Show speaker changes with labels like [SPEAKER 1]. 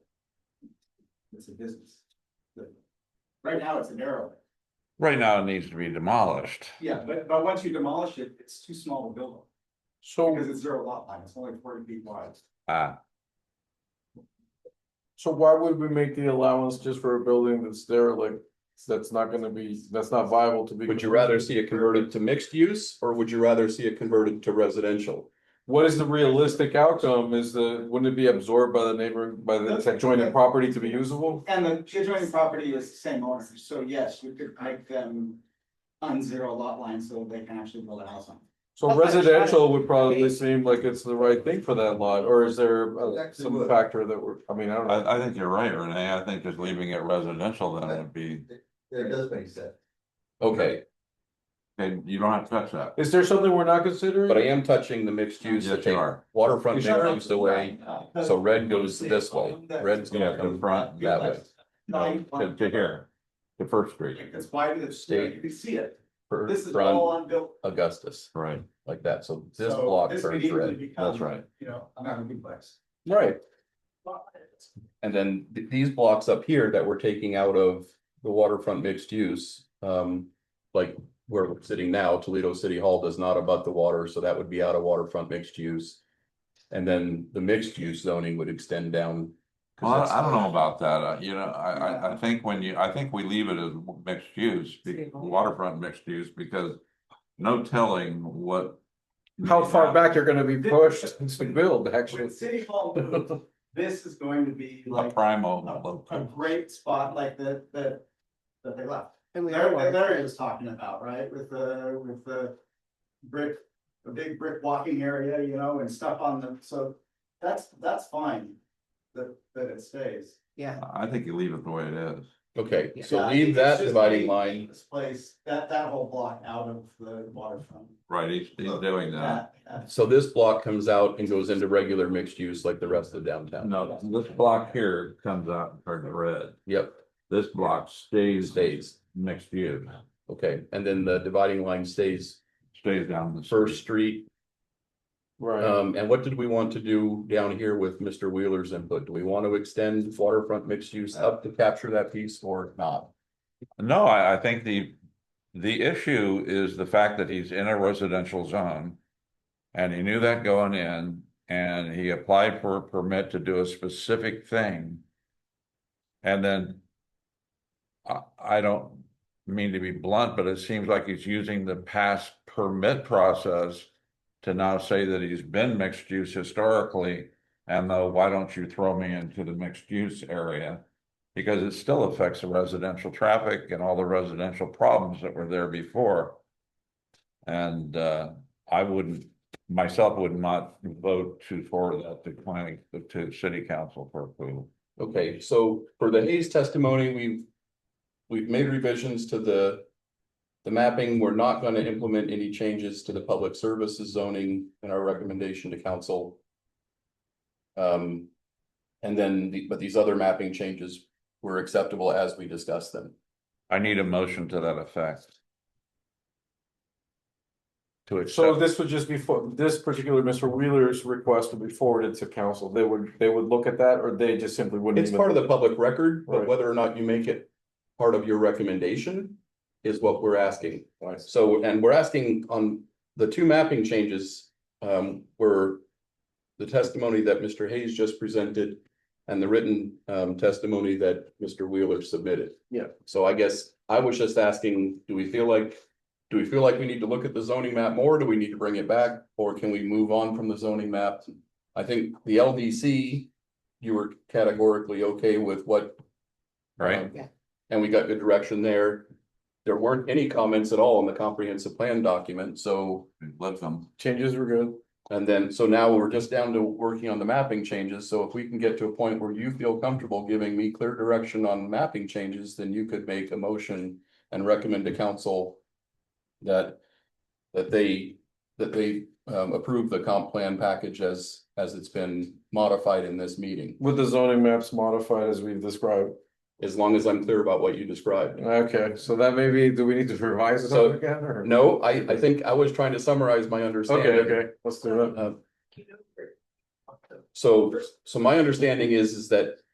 [SPEAKER 1] it's a business. But Right now, it's an arrow.
[SPEAKER 2] Right now, it needs to be demolished.
[SPEAKER 1] Yeah, but, but once you demolish it, it's too small to build on,
[SPEAKER 3] So,
[SPEAKER 1] because it's zero lot line, it's only forty feet wide.
[SPEAKER 2] Uh,
[SPEAKER 3] so why would we make the allowance just for a building that's derelict? That's not gonna be, that's not viable to be.
[SPEAKER 4] Would you rather see it converted to mixed use or would you rather see it converted to residential?
[SPEAKER 3] What is the realistic outcome? Is the, wouldn't it be absorbed by the neighbor, by the adjoining property to be usable?
[SPEAKER 1] And the adjoining property is the same owner, so yes, you could make them on zero lot line so they can actually build a house on. it.
[SPEAKER 3] So residential would probably seem like it's the right thing for that lot, or is there uh,
[SPEAKER 5] Exactly
[SPEAKER 3] some
[SPEAKER 5] what-
[SPEAKER 3] factor that we're, I mean, I don't know.
[SPEAKER 2] I, I think you're right, Renee. I think just leaving it residential then would be,
[SPEAKER 5] That does make sense.
[SPEAKER 4] Okay,
[SPEAKER 2] and you don't have to touch that.
[SPEAKER 3] Is there something we're not considering?
[SPEAKER 4] but I am touching the mixed use,
[SPEAKER 2] Yes,
[SPEAKER 4] to
[SPEAKER 2] you
[SPEAKER 4] take
[SPEAKER 2] are.
[SPEAKER 4] waterfront
[SPEAKER 3] You sure?
[SPEAKER 4] mixed use away, so red goes
[SPEAKER 1] "Oh,
[SPEAKER 4] this way, red's
[SPEAKER 2] Yeah,
[SPEAKER 4] gonna
[SPEAKER 2] to the
[SPEAKER 4] come
[SPEAKER 2] front,
[SPEAKER 4] that way. Um,
[SPEAKER 2] no, to, to here, to First Street,
[SPEAKER 1] It's wide, it's, you know, you can see it, this is all
[SPEAKER 4] From
[SPEAKER 1] unbuilt.
[SPEAKER 4] Augustus,
[SPEAKER 2] right,
[SPEAKER 4] like that, so this
[SPEAKER 1] so
[SPEAKER 4] block
[SPEAKER 1] this
[SPEAKER 4] turns
[SPEAKER 1] could easily
[SPEAKER 4] red.
[SPEAKER 1] become,
[SPEAKER 2] that's right.
[SPEAKER 1] You know, I'm having a duplex.
[SPEAKER 3] Right,
[SPEAKER 4] And then th- these blocks up here that we're taking out of the waterfront mixed use, um, like where we're sitting now, Toledo City Hall does not abut the water, so that would be out of waterfront mixed use. And then the mixed use zoning would extend down. 'cause
[SPEAKER 2] Well,
[SPEAKER 4] that's-
[SPEAKER 2] I I don't know about that, uh, you know, I, I, I think when you, I think we leave it as mixed use, be- waterfront mixed use, because no telling what.
[SPEAKER 3] how far back you're gonna be pushed to build, actually.
[SPEAKER 1] When City Hall moves, this is going to be
[SPEAKER 2] A
[SPEAKER 1] like
[SPEAKER 2] primal.
[SPEAKER 1] a, a great spot like the, the, that they left.
[SPEAKER 6] And we
[SPEAKER 1] Larry,
[SPEAKER 6] are,
[SPEAKER 1] Larry was talking about, right, with the, with the brick, a big brick walking area, you know, and stuff on the, so that's, that's fine. That, that it stays.
[SPEAKER 6] yeah,
[SPEAKER 2] I think you leave it the way it is.
[SPEAKER 4] Okay,
[SPEAKER 1] Yeah,
[SPEAKER 4] so
[SPEAKER 1] I
[SPEAKER 4] leave
[SPEAKER 1] think it's
[SPEAKER 4] that
[SPEAKER 1] just
[SPEAKER 4] dividing
[SPEAKER 1] leave
[SPEAKER 4] line,
[SPEAKER 1] This place, that, that whole block out of the waterfront.
[SPEAKER 2] Right, he's, he's doing that.
[SPEAKER 1] That- that-
[SPEAKER 4] so this block comes out and goes into regular mixed use like the rest of downtown.
[SPEAKER 2] No, this block here comes out and turns red.
[SPEAKER 4] Yep,
[SPEAKER 2] This block stays
[SPEAKER 4] stays,
[SPEAKER 2] next year,
[SPEAKER 4] okay, and then the dividing line stays
[SPEAKER 2] stays down the.
[SPEAKER 4] First Street
[SPEAKER 3] Right,
[SPEAKER 4] Um, and what did we want to do down here with Mr. Wheeler's input? Do we want to extend waterfront mixed use up to capture that piece or not?
[SPEAKER 2] No, I, I think the, the issue is the fact that he's in a residential zone. And he knew that going in, and he applied for a permit to do a specific thing. And then. I, I don't mean to be blunt, but it seems like he's using the past permit process. To now say that he's been mixed use historically, and though, why don't you throw me into the mixed use area? because it still affects the residential traffic and all the residential problems that were there before. And uh, I wouldn't, myself would not vote to forward that to planning, to city council for approval.
[SPEAKER 4] Okay, so for the Hayes testimony, we've. We've made revisions to the. The mapping, we're not going to implement any changes to the public services zoning in our recommendation to council. Um. And then, the- but these other mapping changes were acceptable as we discussed them.
[SPEAKER 2] I need a motion to that effect. To
[SPEAKER 3] so
[SPEAKER 2] accept,
[SPEAKER 3] this would just be, for this particular Mr. Wheeler's request would be forwarded to council, they would, they would look at that, or they just simply wouldn't.
[SPEAKER 4] It's
[SPEAKER 3] even-
[SPEAKER 4] part of the public record, but
[SPEAKER 3] Right.
[SPEAKER 4] whether or not you make it part of your recommendation is what we're asking.
[SPEAKER 3] Right.
[SPEAKER 4] So, and we're asking on the two mapping changes, um, were the testimony that Mr. Hayes just presented and the written, um, testimony that Mr. Wheeler submitted.
[SPEAKER 3] Yeah.
[SPEAKER 4] So I guess I was just asking, do we feel like, do we feel like we need to look at the zoning map more? Do we need to bring it back? Or can we move on from the zoning map? I think the LDC, you were categorically okay with what
[SPEAKER 2] right?
[SPEAKER 4] um,
[SPEAKER 6] Yeah.
[SPEAKER 4] And we got good direction there. There weren't any comments at all in the comprehensive plan document, so,
[SPEAKER 2] Let them.
[SPEAKER 3] Changes were good.
[SPEAKER 4] and then, so now we're just down to working on the mapping changes, so if we can get to a point where you feel comfortable giving me clear direction on mapping changes, then you could make a motion and recommend to council that, that they, that they um approve the comp plan package as, as it's been modified in this meeting,
[SPEAKER 3] With the zoning maps modified as we've described,
[SPEAKER 4] as long as I'm clear about what you described.
[SPEAKER 3] okay, so that maybe, do we need to revise this
[SPEAKER 4] So-
[SPEAKER 3] up again, or?
[SPEAKER 4] No, I, I think I was trying to summarize my
[SPEAKER 3] Okay,
[SPEAKER 4] understanding.
[SPEAKER 3] okay, let's do that.
[SPEAKER 4] So, so my understanding is, is that